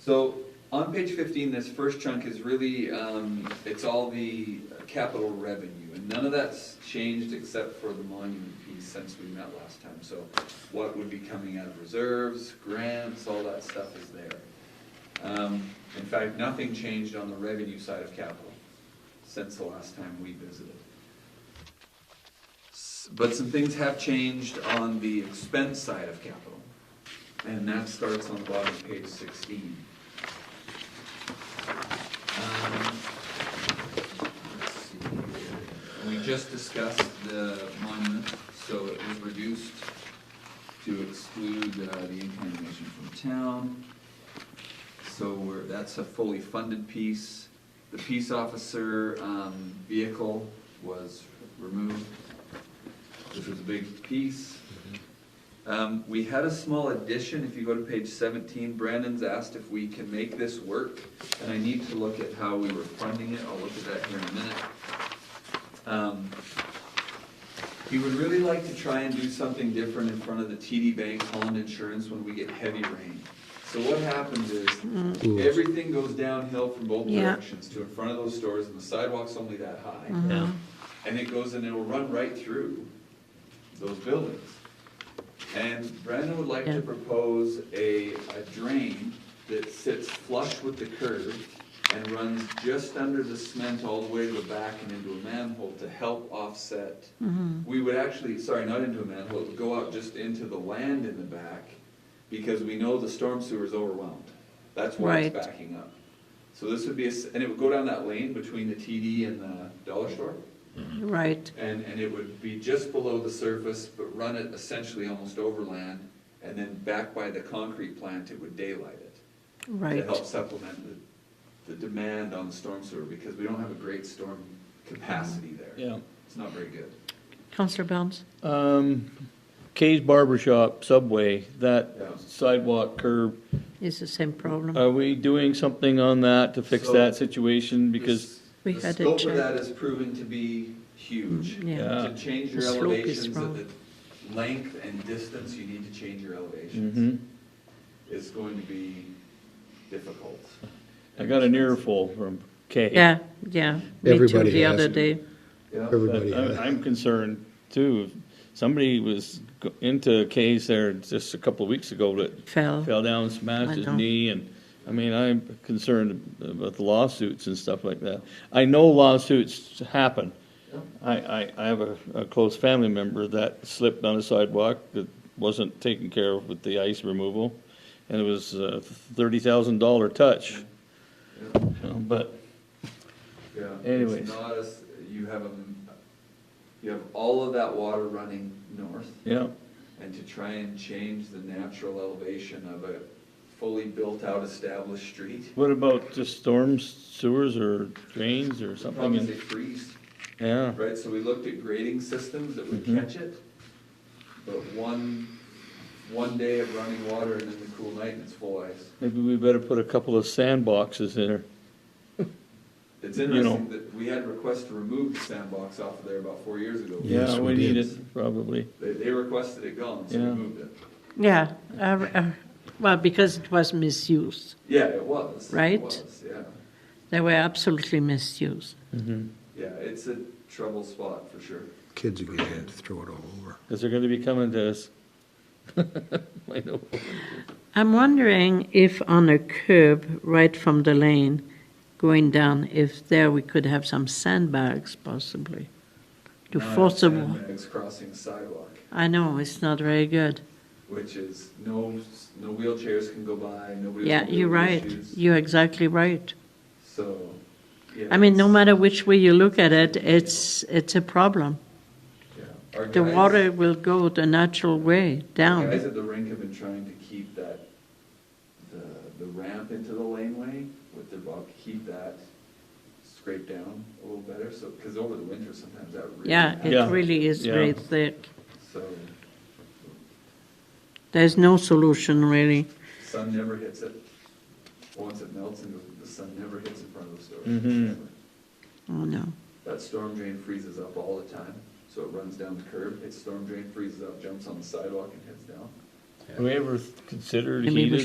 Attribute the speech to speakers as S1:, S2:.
S1: So on page fifteen, this first chunk is really, um, it's all the capital revenue, and none of that's changed except for the monument piece since we met last time. So what would be coming out of reserves, grants, all that stuff is there. Um, in fact, nothing changed on the revenue side of capital since the last time we visited. S- But some things have changed on the expense side of capital. And that starts on the bottom of page sixteen. Um, let's see here. We just discussed the monument, so it was reduced to exclude uh, the income donation from town. So we're, that's a fully funded piece. The peace officer, um, vehicle was removed, which was a big piece. Um, we had a small addition, if you go to page seventeen, Brandon's asked if we can make this work, and I need to look at how we were funding it, I'll look at that here in a minute. Um, He would really like to try and do something different in front of the TD Bank Holland Insurance when we get heavy rain. So what happens is, everything goes downhill from both
S2: Yeah.
S1: directions to in front of those stores, and the sidewalk's only that high.
S3: Yeah.
S1: And it goes and it'll run right through those buildings. And Brandon would like
S2: Yeah.
S1: to propose a, a drain that sits flush with the curb and runs just under the cement all the way to the back and into a manhole to help offset.
S2: Mm-hmm.
S1: We would actually, sorry, not into a manhole, it would go out just into the land in the back because we know the storm sewer is overwhelmed. That's why it's
S2: Right.
S1: backing up. So this would be, a s- and it would go down that lane between the TD and the dollar store.
S2: Right,
S1: And, and it would be just below the surface, but run it essentially almost overland, and then back by the concrete plant, it would daylight it. To
S2: right.
S1: help supplement the, the demand on the storm sewer, because we don't have a great storm capacity there.
S3: Yeah.
S1: It's not very good.
S2: Counselor Bounce?
S3: Um, Kay's Barber Shop, Subway,
S1: Yeah.
S3: that sidewalk curb,
S2: It's the same problem.
S3: are we doing something on that to fix
S1: So-
S3: that situation? Because,
S2: We
S1: The
S2: had a
S1: scope of
S2: check.
S1: that is proven to be huge.
S2: Yeah.
S1: To change your
S2: The slope is
S1: elevations at
S2: wrong.
S1: the length and distance, you need to change your elevations.
S3: Mhm.
S1: It's going to be difficult.
S3: I got an earful from Kay.
S2: Yeah, yeah. Me too,
S4: Everybody
S2: the
S4: has
S2: other
S4: it.
S2: day.
S1: Yeah.
S4: Everybody
S3: But
S4: had
S3: I'm,
S4: it.
S3: I'm concerned too, If somebody was go- into Kay's there just a couple of weeks ago that
S2: Fell.
S3: fell down, smashed
S2: I
S3: his
S2: know.
S3: knee, and, I mean, I'm concerned about the lawsuits and stuff like that. I know lawsuits happen.
S1: Yeah.
S3: I, I, I have a, a close family member that slipped on a sidewalk that wasn't taken care of with the ice removal, and it was a thirty thousand dollar touch,
S1: Yeah.
S3: you know, but,
S1: Yeah. it's
S3: Anyways.
S1: not as, you have, um, you have all of that water running north,
S3: yeah,
S1: and to try and change the natural elevation of a fully built-out established street,
S3: what about just storms, sewers, or drains, or
S1: the
S3: something?
S1: problem is
S3: in-
S1: they freeze,
S3: Yeah,
S1: right? So we looked at grading systems that would
S3: Mhm.
S1: catch it, but one, one day of running water and then the cool night and it's full ice.
S3: maybe we better put a couple of sandboxes in there.
S1: It's
S3: You
S1: interesting that we had requests to remove the sandbox off of there about four years ago.
S3: Yeah,
S4: Yes,
S3: we
S4: we
S3: need
S4: did.
S3: it, probably.
S1: They, they requested it gone, so we
S3: Yeah.
S1: moved it.
S2: Yeah, uh, uh, well, because it was misused.
S1: Yeah, it was. it
S2: Right.
S1: was, yeah.
S2: They were absolutely misused.
S1: Yeah, it's a trouble spot for sure.
S4: Kids again, had to throw it all over.
S3: Because they're going to be coming to us. I know.
S2: I'm wondering if on a curb right from the lane going down, if there we could have some sandbags possibly to
S1: Not
S2: force a.
S1: sandbags crossing the sidewalk,
S2: I know, it's not very good.
S1: which is no, no wheelchairs can go by, nobody.
S2: Yeah,
S1: with mobility
S2: you're right.
S1: issues.
S2: You're exactly right.
S1: So, yeah.
S2: I mean, no
S1: it's-
S2: matter which way you look at it, it's, it's a problem.
S1: yeah. Our
S2: The
S1: guys-
S2: water will go the natural way
S1: The guys
S2: down.
S1: at the rink have been trying to keep that, the, the ramp into the laneway with their bob, keep that scraped down a little better, so, because over the winter sometimes that really.
S2: Yeah,
S3: Yeah.
S2: it really is
S3: Yeah.
S2: very thick.
S1: happens. So,
S2: There's no solution really.
S1: sun never hits it. Once it melts and the sun never hits in front of the stores.
S3: Mhm.
S1: Never.
S2: Oh, no.
S1: That storm drain freezes up all the time, so it runs down the curb, its storm drain freezes up, jumps on the sidewalk and heads down.
S3: Have we ever considered
S2: Maybe we
S3: heated?